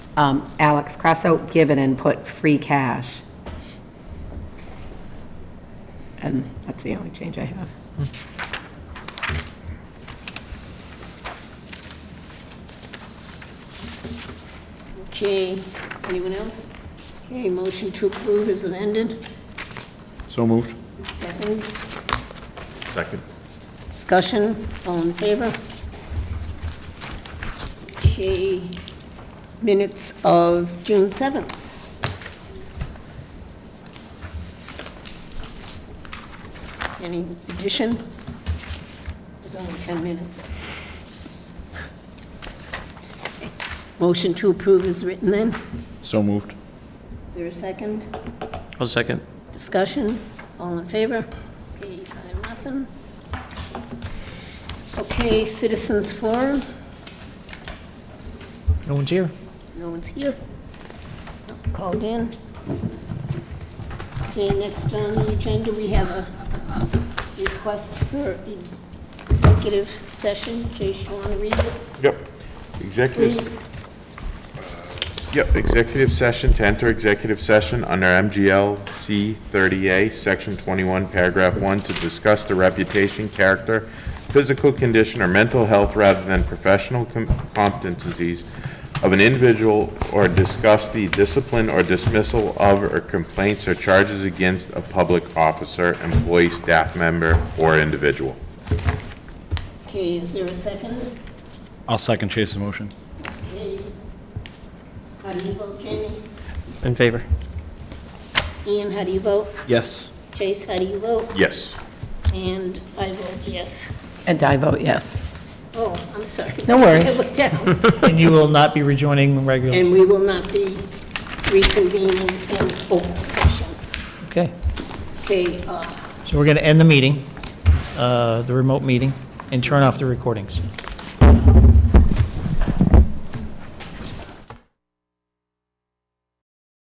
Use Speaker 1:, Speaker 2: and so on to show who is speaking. Speaker 1: um, Alex, cross out given and put free cash. And that's the only change I have.
Speaker 2: Okay, anyone else? Okay, motion to approve is amended.
Speaker 3: So moved.
Speaker 2: Second,
Speaker 3: Second.
Speaker 2: discussion, all in favor? Okay, minutes of June 7th. Any addition? There's only 10 minutes. Motion to approve is written then.
Speaker 3: So moved.
Speaker 2: Is there a second?
Speaker 4: I'll second.
Speaker 2: Discussion, all in favor? Okay, five, nothing. Okay, citizens forum,
Speaker 4: No one's here.
Speaker 2: no one's here. Called in. Okay, next on the agenda, we have a request for executive session. Jace, you want to read it,
Speaker 5: Yep. Executive,
Speaker 2: please?
Speaker 5: yep, executive session, to enter executive session under MGL C 30A, Section 21, Paragraph 1, to discuss the reputation, character, physical condition, or mental health rather than professional com- competencies of an individual, or discuss the discipline or dismissal of or complaints or charges against a public officer, employee, staff member, or individual.
Speaker 2: Okay, is there a second?
Speaker 3: I'll second Chase's motion.
Speaker 2: Okay. How do you vote, Jenny?
Speaker 4: In favor.
Speaker 2: Ian, how do you vote?
Speaker 3: Yes.
Speaker 2: Chase, how do you vote?
Speaker 5: Yes.
Speaker 2: And I vote yes.
Speaker 1: And I vote yes.
Speaker 2: Oh, I'm sorry.
Speaker 1: No worries.
Speaker 2: I looked down.
Speaker 4: And you will not be rejoining
Speaker 2: And
Speaker 4: regularly.
Speaker 2: we will not be reconvening in open session.
Speaker 4: Okay,
Speaker 2: Okay, uh,
Speaker 4: so we're going to end the meeting, uh, the remote meeting, and turn off the recordings.